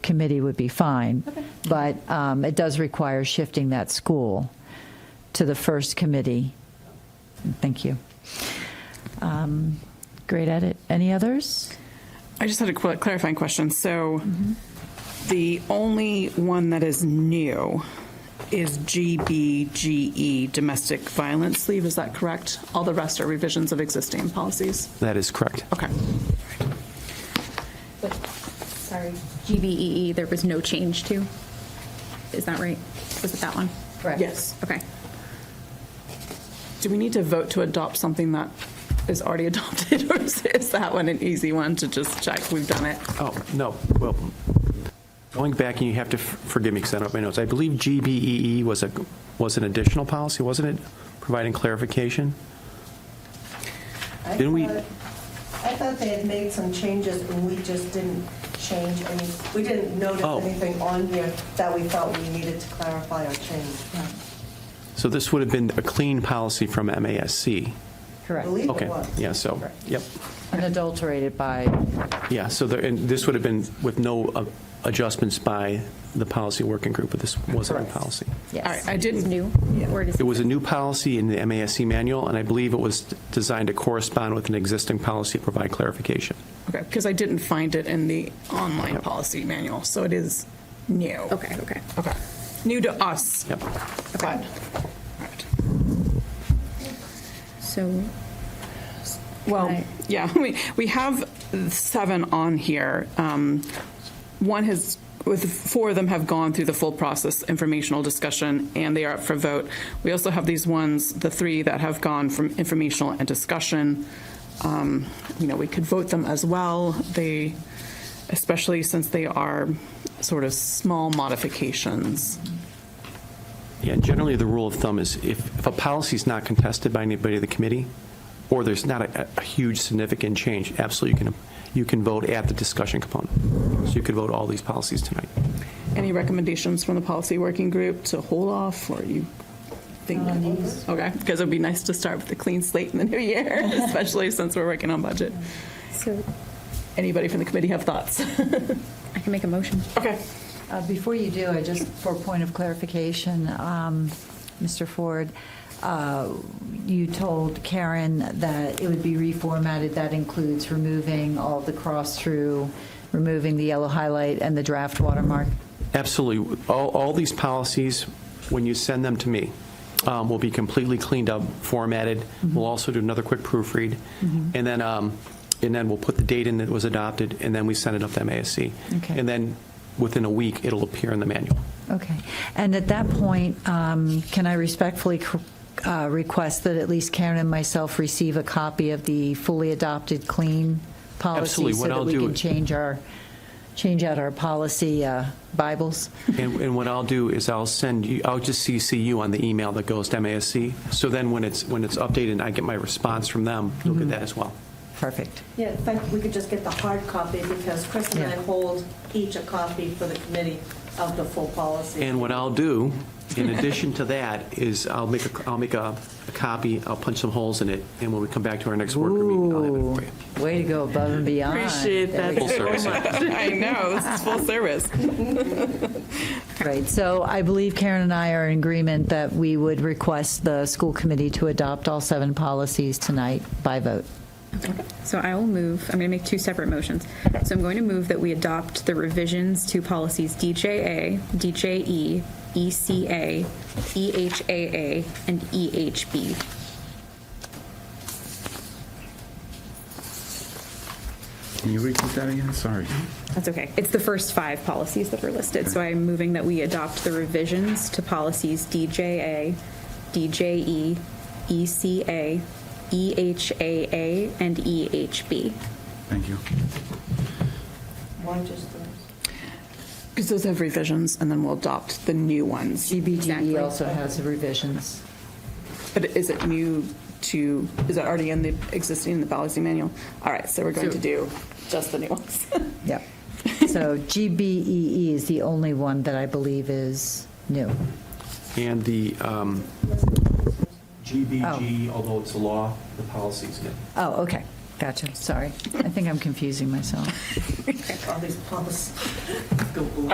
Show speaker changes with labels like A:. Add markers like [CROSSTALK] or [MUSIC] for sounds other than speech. A: committee would be fine. But um, it does require shifting that school to the first committee. Thank you. Um, Great edit. Any others?
B: I just had a qu- clarifying question. So the only one that is new is GBGE, E, domestic violence leave. Is that correct? All the rest are revisions of existing policies.
C: That is correct.
B: Okay.
D: But, sorry, GBEE, E, there was no change to? Is that right? Was it that one?
B: Yes.
D: Okay.
B: Do we need to vote to adopt something that is already [LAUGHS] adopted, or is, is that one an easy one to just check? We've done it.
C: Oh, no, well, going back, and you have to f- forgive me because I don't have my notes. I believe GBEE E was a, was an additional policy, wasn't it? Providing clarification?
E: I
C: Didn't we-
E: thought- I thought they had made some changes, and we just didn't change any, we didn't notice
C: Oh.
E: anything on here that we felt we needed to clarify or change.
C: So this would have been a clean policy from MASC.
E: I
A: Correct.
E: believe it
C: Okay,
E: was.
C: yeah, so, yep.
A: Unadulterated by
C: Yeah, so there, and this would have been with no uh, adjustments by the policy working group, but this was a new
A: Correct.
C: policy.
A: Yes.
B: All right. I didn't.
D: It's new? Or does
C: It was a new policy in the MASC manual, and I believe it was designed to correspond with an existing policy, to provide clarification.
B: Okay, because I didn't find it in the online policy manual, so it is new.
D: Okay, okay.
B: Okay. New to us.
C: Yep.
B: But- all right.
D: So,
B: Well,
D: Right.
B: yeah, [LAUGHS] we, we have seven on here. Um, One has, with, four of them have gone through the full process informational discussion, and they are up for vote. We also have these ones, the three that have gone from informational and discussion. Um, You know, we could vote them as well. They, especially since they are sort of small modifications.
C: Yeah, and generally, the rule of thumb is if, if a policy's not contested by anybody of the committee, or there's not a, a huge significant change, absolutely, you can, you can vote at the discussion component. So you could vote all these policies tonight.
B: Any recommendations from the policy working group to hold off, or you think? Okay, because it'd be nice to start with a clean slate in the new [LAUGHS] year, especially since we're working on budget.
D: so
B: Anybody from the committee have thoughts?
D: I can make a motion.
B: Okay.
A: Uh, Before you do, I just, for a point of clarification, um, Mr. Ford, uh, you told Karen that it would be reformatted. That includes removing all the cross-through, removing the yellow highlight and the draft watermark.
C: Absolutely. All, all these policies, when you send them to me, um, will be completely cleaned up, formatted. We'll also do another quick proofread. And then, um, and then we'll put the date in that it was adopted, and then we send it up to MASC.
A: Okay.
C: And then, within a week, it'll appear in the manual.
A: Okay. And at that point, um, can I respectfully cr- uh, request that at least Karen and myself receive a copy of the fully adopted clean policy?
C: Absolutely. What I'll
A: So that
C: do-
A: we can change our, change out our policy uh, Bibles?
C: And, and what I'll do is I'll send you, I'll just CC you on the email that goes to MASC. So then when it's, when it's updated and I get my response from them, you'll get that as well.
A: Perfect.
E: Yeah, in fact, we could just get the hard copy, because Chris and I
A: Yeah.
E: hold each a copy for the committee of the full policy.
C: And what I'll do, in addition to that, is I'll make a, I'll make a, a copy, I'll punch some holes in it, and when we come back to our next worker meeting, I'll have it for you.
A: Way to go above and beyond.
B: Appreciate
A: There we
B: that
C: Full
B: [LAUGHS]
C: service.
B: I know, this is full service.
A: go. Right, so I believe Karen and I are in agreement that we would request the school committee to adopt all seven policies tonight by vote.
D: So I will move, I'm going to make two separate motions. So I'm going to move that we adopt the revisions to policies DJA, DJE, ECA, E EHAA, and E EHB.
F: Can you repeat that again? Sorry.
D: That's okay. It's the first five policies that are listed, so I'm moving that we adopt the revisions to policies DJA, DJE, E ECA, E EHAA, and E EHB.
F: Thank you.
E: Why just those?
B: Because those have revisions, and then we'll adopt the new ones.
D: Exactly.
A: GBGE E also has revisions.
B: E But is it new to, is it already in the, existing in the policy manual? All right, so we're going to do just the new ones.
A: Yep. So GBEE E is the only one that I believe is new.
C: And the um, GBG, although it's a law, the policy's good.
A: Oh, okay, Gotcha, sorry. I think I'm confusing myself.
E: all these policies.